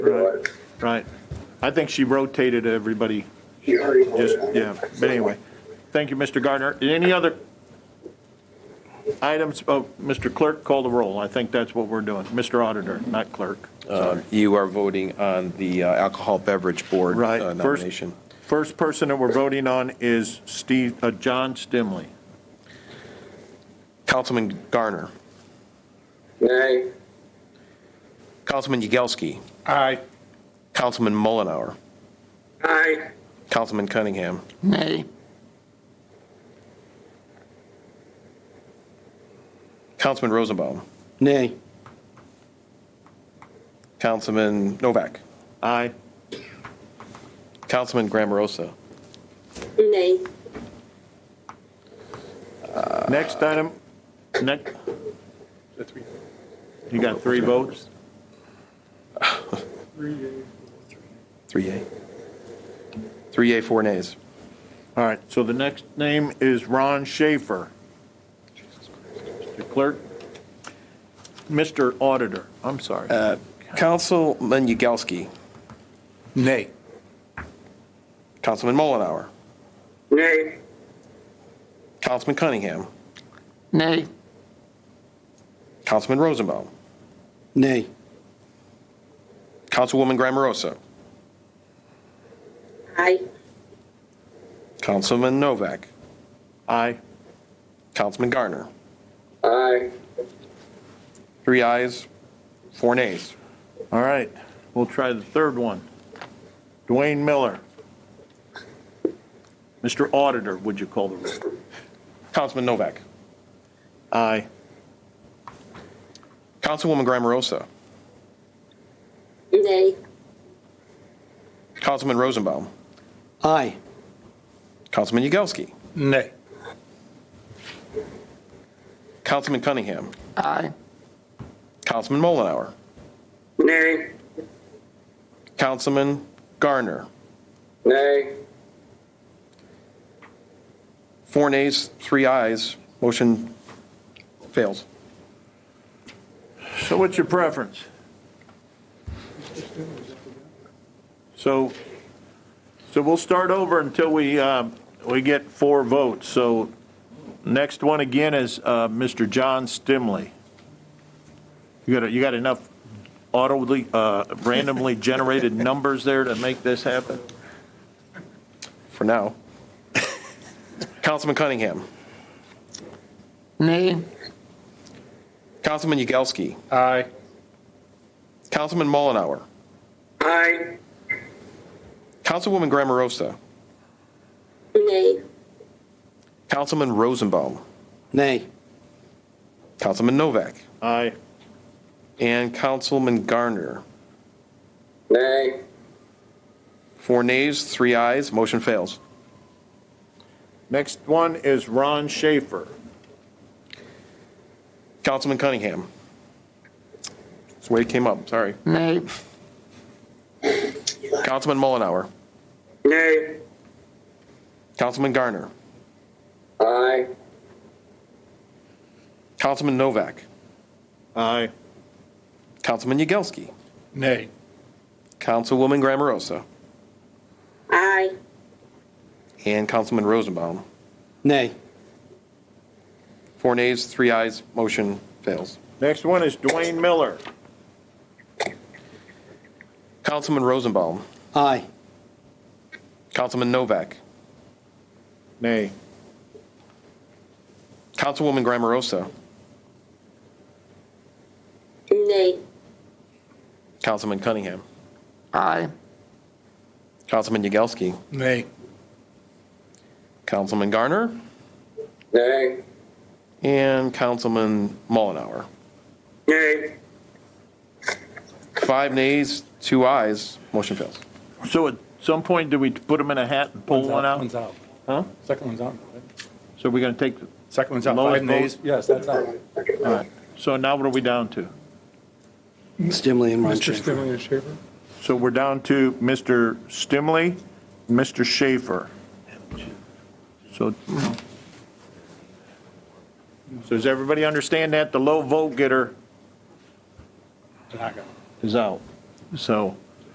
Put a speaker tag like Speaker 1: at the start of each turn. Speaker 1: Right, right. I think she rotated everybody,
Speaker 2: You already
Speaker 1: just,
Speaker 2: voted on it.
Speaker 1: yeah, but anyway. Thank you, Mr. Gardner. Any other items? Oh, Mr. Clerk, call the roll. I think that's what we're doing. Mr. Auditor, not clerk. Sorry.
Speaker 3: Uh, You are voting on the uh, Alcohol Beverage Board
Speaker 1: Right.
Speaker 3: uh,
Speaker 1: First-
Speaker 3: nomination.
Speaker 1: First person that we're voting on is Steve, uh, John Stimley.
Speaker 3: Councilman Garner,
Speaker 2: Nay,
Speaker 3: Councilman Yagelski,
Speaker 1: Aye.
Speaker 3: Councilman Mullenhour,
Speaker 2: aye,
Speaker 3: Councilman Cunningham,
Speaker 4: Nay.
Speaker 3: Councilman Rosenbaum,
Speaker 4: Nay.
Speaker 3: Councilman Novak,
Speaker 1: Aye.
Speaker 3: Councilman Grammarosa.
Speaker 5: Nay.
Speaker 1: Next item, next. You got three votes?
Speaker 3: Three yea. Three yea, four nays.
Speaker 1: All right, so the next name is Ron Schaefer. Mr. Clerk, Mr. Auditor, I'm sorry.
Speaker 3: Councilman Yagelski,
Speaker 4: Nay.
Speaker 3: Councilman Mullenhour,
Speaker 2: nay,
Speaker 3: Councilman Cunningham,
Speaker 4: Nay.
Speaker 3: Councilman Rosenbaum,
Speaker 4: Nay.
Speaker 3: Councilwoman Grammarosa,
Speaker 5: Aye.
Speaker 3: Councilman Novak,
Speaker 1: Aye.
Speaker 3: Councilman Garner.
Speaker 2: aye,
Speaker 3: Three ayes, four nays.
Speaker 1: All right, we'll try the third one. Dwayne Miller. Mr. Auditor, would you call the roll?
Speaker 3: Councilman Novak,
Speaker 1: Aye.
Speaker 3: Councilwoman Grammarosa,
Speaker 5: Nay.
Speaker 3: Councilman Rosenbaum,
Speaker 4: Aye.
Speaker 3: Councilman Yagelski,
Speaker 4: Nay.
Speaker 3: Councilman Cunningham,
Speaker 4: Aye.
Speaker 3: Councilman Mullenhour,
Speaker 2: nay,
Speaker 3: Councilman Garner.
Speaker 2: nay,
Speaker 3: Four nays, three ayes, motion fails.
Speaker 1: So what's your preference? So, so we'll start over until we, um, we get four votes. So next one again is uh, Mr. John Stimley. You got, you got enough audibly, uh, randomly generated numbers there to make this happen?
Speaker 3: For now. Councilman Cunningham,
Speaker 4: Nay.
Speaker 3: Councilman Yagelski,
Speaker 4: Aye.
Speaker 3: Councilman Mullenhour,
Speaker 2: aye,
Speaker 3: Councilwoman Grammarosa,
Speaker 5: Nay.
Speaker 3: Councilman Rosenbaum,
Speaker 4: Nay.
Speaker 3: Councilman Novak,
Speaker 1: Aye.
Speaker 3: and Councilman Garner.
Speaker 2: nay,
Speaker 3: Four nays, three ayes, motion fails.
Speaker 1: Next one is Ron Schaefer.
Speaker 3: Councilman Cunningham. That's the way it came up, sorry.
Speaker 4: Nay.
Speaker 3: Councilman Mullenhour,
Speaker 2: nay,
Speaker 3: Councilman Garner,
Speaker 2: aye,
Speaker 3: Councilman Novak,
Speaker 1: Aye.
Speaker 3: Councilman Yagelski,
Speaker 4: Nay.
Speaker 3: Councilwoman Grammarosa,
Speaker 5: Aye.
Speaker 3: and Councilman Rosenbaum.
Speaker 4: Nay.
Speaker 3: Four nays, three ayes, motion fails.
Speaker 1: Next one is Dwayne Miller.
Speaker 3: Councilman Rosenbaum,
Speaker 4: Aye.
Speaker 3: Councilman Novak,
Speaker 1: Nay.
Speaker 3: Councilwoman Grammarosa,
Speaker 5: Nay.
Speaker 3: Councilman Cunningham,
Speaker 4: Aye.
Speaker 3: Councilman Yagelski,
Speaker 4: Nay.
Speaker 3: Councilman Garner,
Speaker 2: nay,
Speaker 3: and Councilman Mullenhour.
Speaker 2: nay,
Speaker 3: Five nays, two ayes, motion fails.
Speaker 1: So at some point, do we put him in a hat and pull one out?
Speaker 6: One's out.
Speaker 1: Huh?
Speaker 6: Second one's out. right?
Speaker 1: So we're going to take,
Speaker 6: Second one's out.
Speaker 1: Lowest
Speaker 6: Five nays.
Speaker 1: vote?
Speaker 6: Yes, that's out.
Speaker 1: all right. So now what are we down to?
Speaker 4: Stimley and Ron
Speaker 6: Mr.
Speaker 4: Schaefer.
Speaker 6: Stimling and Schaefer?
Speaker 1: So we're down to Mr. Stimley, Mr. Schaefer. So, so does everybody understand that? The low vote getter
Speaker 6: Not gonna.
Speaker 1: is out. So